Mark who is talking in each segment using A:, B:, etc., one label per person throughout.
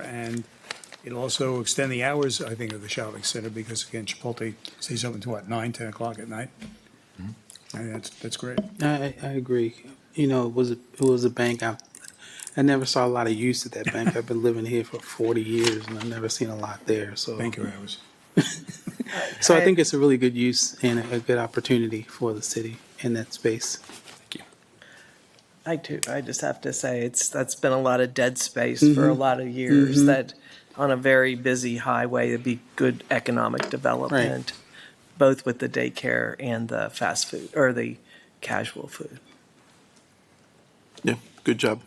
A: And it'll also extend the hours, I think, of the shopping center because again, Chipotle stays open to what, nine, 10 o'clock at night? And that's, that's great.
B: I, I agree. You know, it was a, it was a bank. I, I never saw a lot of use at that bank. I've been living here for 40 years and I've never seen a lot there. So,
A: Thank you, hours.
B: so I think it's a really good use and a, a good opportunity for the city in that space.
C: I do. I just have to say it's that's been a lot of dead space for a lot of years. That on a very busy highway, it'd be good economic development, both with the daycare and the fast food or the casual food.
D: Yeah, good job.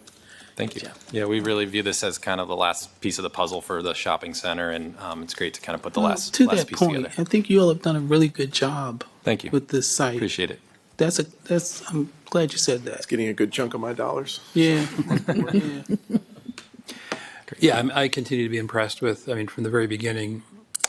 E: Thank you. Yeah, we really view this as kind of the last piece of the puzzle for the shopping center, and um, it's great to kind of put the last,
B: to
E: last
B: that
E: piece
B: point,
E: together.
B: I think you all have done a really good job
E: Thank you.
B: with this site.
E: Appreciate it.
B: That's a, that's, I'm glad you said that.
D: Getting a good chunk of my dollars.
B: Yeah.
F: Yeah, I'm- I continue to be impressed with, I mean, from the very beginning,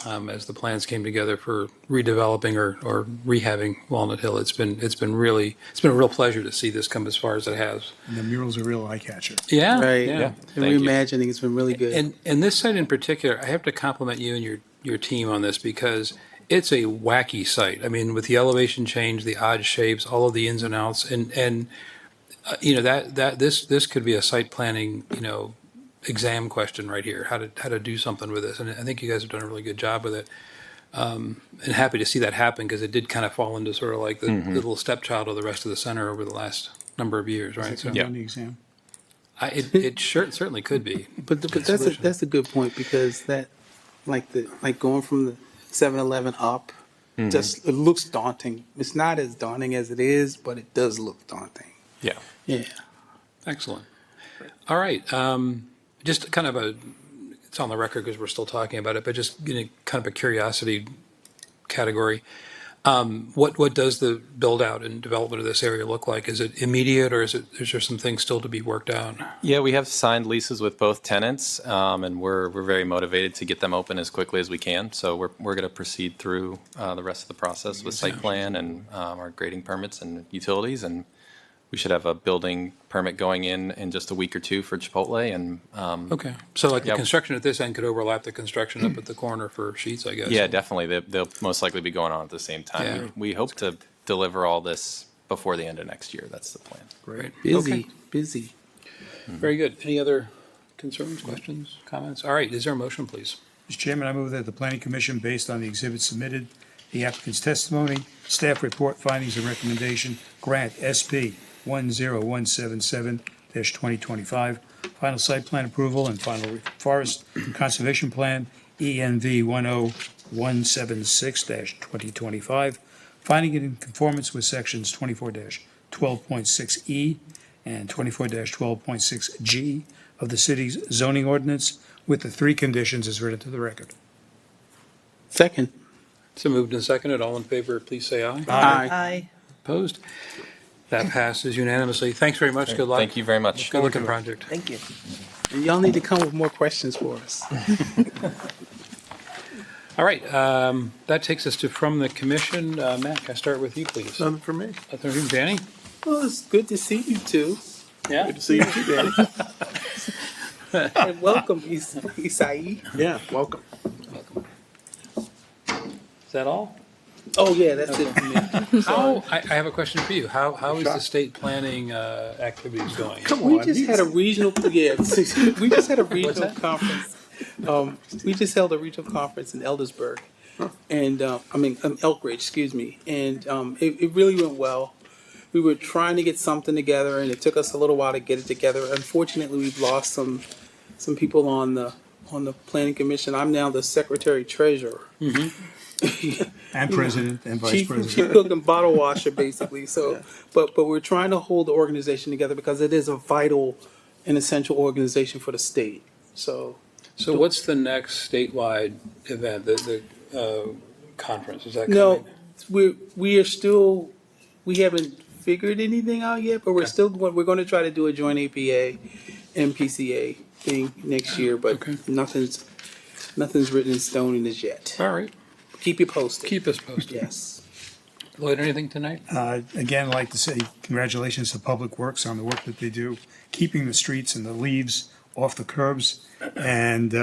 F: um, as the plans came together for redeveloping or, or rehabbing Walnut Hill, it's been, it's been really, it's been a real pleasure to see this come as far as it has.
A: And the mural's a real eye catcher.
F: Yeah.
B: Right.
F: yeah.
B: The
E: Thank you.
B: reimagining has been really good.
F: And, and this site in particular, I have to compliment you and your, your team on this because it's a wacky site. I mean, with the elevation change, the odd shapes, all of the ins and outs, and, and, uh, you know, that, that, this, this could be a site planning, you know, exam question right here, how to, how to do something with this. And I think you guys have done a really good job with it. Um, and happy to see that happen because it did kind of fall into sort of like the little stepchild of the rest of the center over the last number of years, right? So
A: On the exam.
F: I, it, it sure, certainly could be.
B: But, the, but that's a,
F: solution.
B: that's a good point because that, like the like going from the 7-Eleven up, just it looks daunting. It's not as daunting as it is, but it does look daunting.
E: Yeah.
B: Yeah.
F: Excellent. All right. Um, just kind of a, it's on the record because we're still talking about it, but just in a kind of a curiosity category. Um, what what does the build out and development of this area look like? Is it immediate, or is it is there some things still to be worked out?
E: Yeah, we have signed leases with both tenants, um, and we're, we're very motivated to get them open as quickly as we can. So we're, we're going to proceed through uh, the rest of the process with site plan and um, our grading permits and utilities. And we should have a building permit going in in just a week or two for Chipotle. And um,
F: Okay, so like
E: Yeah.
F: the construction at this end could overlap the construction up at the corner for sheets, I guess.
E: Yeah, definitely. They, they'll most likely be going on at the same time.
F: Yeah.
E: We hope to deliver all this before the end of next year. That's the plan.
F: Great.
B: Busy,
F: Okay.
B: busy.
F: Very good. Any other concerns, questions, comments? All right. Is there a motion, please?
A: Mr. Chairman, I move that the planning commission, based on the exhibits submitted, the applicant's testimony, staff report, findings and recommendation, grant SP 10177-2025, final site plan approval and final forest conservation plan, E ENV 10176-2025, finding it in conformance with sections 24-12.6E E and 24-12.6G of the city's zoning ordinance with the three conditions as written to the record.
B: Second.
F: So moved and seconded. All in favor, please say aye.
B: Aye.
C: I
F: Opposed? That passes unanimously. Thanks very much. Good luck.
E: Thank you very much.
F: Good looking project.
C: thank you.
B: And y'all need to come with more questions for us.
F: All right, um, that takes us to from the commission. Uh, Matt, can I start with you, please?
D: Nothing for me.
F: Nothing from Danny?
B: Well, it's good to see you two.
F: Yeah.
D: Good to see you too, Danny.
B: And welcome, Is- Isai.
D: Yeah, welcome.
F: Is that all?
B: Oh, yeah, that's it for me.
F: How, I, I have a question for you. How, how is the state planning, uh, activities going?
B: We just had a regional, yeah, we just had a regional
F: that?
B: conference. Um, we just held a regional conference in Eldersburg, and uh, I mean um, Elk Ridge, excuse me, and um, it, it really went well. We were trying to get something together, and it took us a little while to get it together. Unfortunately, we've lost some some people on the on the planning commission. I'm now the secretary treasurer.
A: And president and vice
B: chief,
A: president.
B: chief cook and bottle washer basically so but but we're trying to hold the organization together because it is a vital and essential organization for the state so
F: So what's the next statewide event, the, the, uh, conference? Is that
B: no
F: coming?
B: we we are still we haven't figured anything out yet but we're still going we're going to try to do a joint apa and pca thing next year but
F: Okay.
B: nothing's nothing's written in stone in this yet
F: All right,
B: keep you posted
F: keep us posted.
B: yes
F: Lloyd, anything tonight?
A: Uh, Again, I'd like to say congratulations to Public Works on the work that they do, keeping the streets and the leaves off the curbs and, uh,